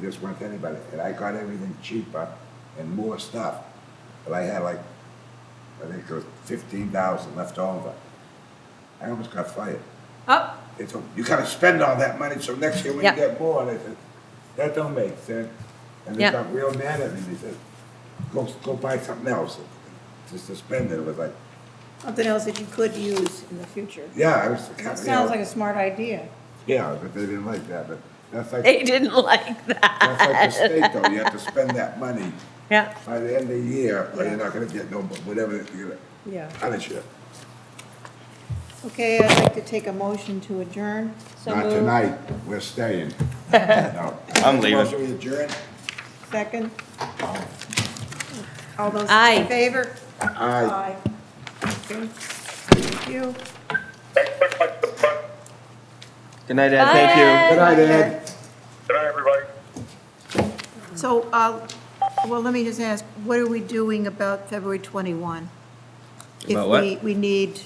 this one to anybody, and I got everything cheaper and more stuff. But I had like, I think it was fifteen thousand left over. I almost got fired. Oh, They told me, you gotta spend all that money, so next year when you Yeah. get more, and I said, that don't make sense. And they Yeah. got real mad at me, they said, go, go buy something else, just to spend it, it was like, Something else that you could use in the future. yeah, I was. That sounds like a smart idea. Yeah, but they didn't like that, but that's like, they didn't like that's like the that. state though, you have to spend that money Yeah, by the end of the year, or Yeah. you're not gonna get no, whatever, you're gonna Yeah. punish you. Okay, I'd like to take a motion to adjourn. so Not moved. tonight, we're staying. No. I'm leaving. Motion we adjourn? Second. All those Aye. in favor? Aye. Okay. Thank you. Good night, Ed. Thank you. Bye. Good night, Ed. Good night, everybody. So, uh, well, let me just ask, what are we doing about February 21? About what? If we, we need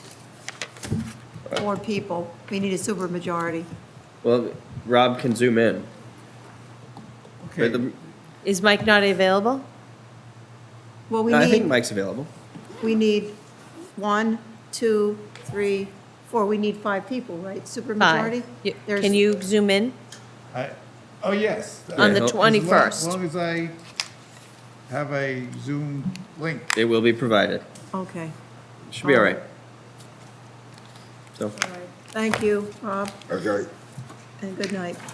four people, we need a supermajority. Well, Rob can zoom in. But the- Is Mike not available? Well, we I think need, Mike's available. we need one, two, three, four, we need five people, right? Supermajority? Five. You- There's- Can you zoom in? I, oh, yes. On the Yeah. As lo- As 21st. long as I have a Zoom link. It will be provided. Okay, Should be all right. So. thank you, Rob, Okay. and good night.